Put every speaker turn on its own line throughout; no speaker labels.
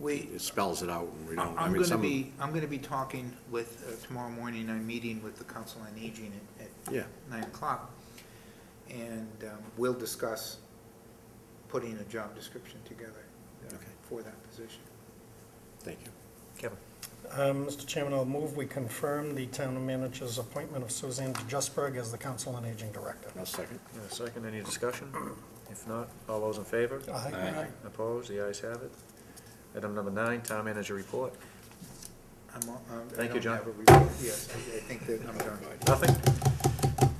We,
it spells it out and we don't, I
I'm
mean,
gonna
some,
be, I'm gonna be talking with, uh, tomorrow morning, I'm meeting with the Council on Aging at, at
yeah,
nine o'clock, and um, we'll discuss putting a job description together uh,
Okay.
for that position.
thank you.
Kevin.
Um, Mr. Chairman, I'll move we confirm the town manager's appointment of Suzanne DeJustburg as the Council on Aging Director.
I'll second.
In a second, any discussion? If not, all those in favor?
Aye.
Opposed? The ayes have it. Item number nine, town manager report.
I'm all- I'm- I
Thank you,
don't
John.
have a report. Yes, I I think that I'm done.
Nothing?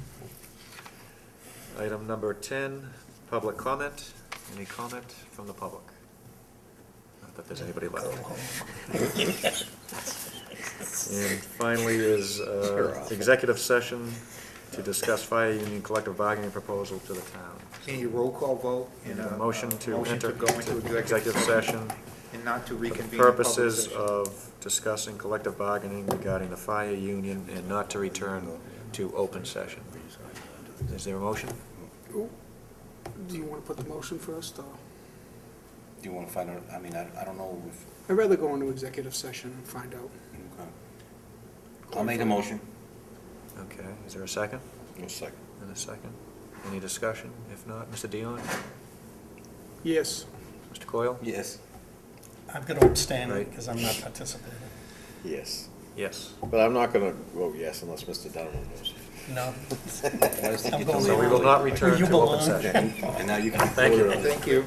Item number ten, public comment. Any comment from the public? Not that there's anybody left. And finally is,
You're
uh,
awful.
executive session to discuss fire union collective bargaining proposal to the town.
Can you roll call vote?
And
and,
a
uh,
motion
uh,
to
motion
enter
go
into executive session
And not to
for
reconvene.
the
in public
purposes
session.
of discussing collective bargaining regarding the fire union and not to return to open session. Is there a motion?
Do you want to put the motion first, or?
Do you want to find out, I mean, I, I don't know if,
I'd rather go into executive session and find out.
I'll make a motion.
Okay, is there a second?
I'll second.
And a second? Any discussion? If not, Mr. Dion?
Yes.
Mr. Coyle?
Yes.
I'm going to abstain
Right.
because I'm not participating.
Yes,
Yes.
but I'm not going to vote yes unless Mr. Donovan votes.
No.
Why does he
I'm
get to
going
So we
leave?
will not return
You
to open
belong.
session.
And now you can.
Thank you.
vote it
Thank you.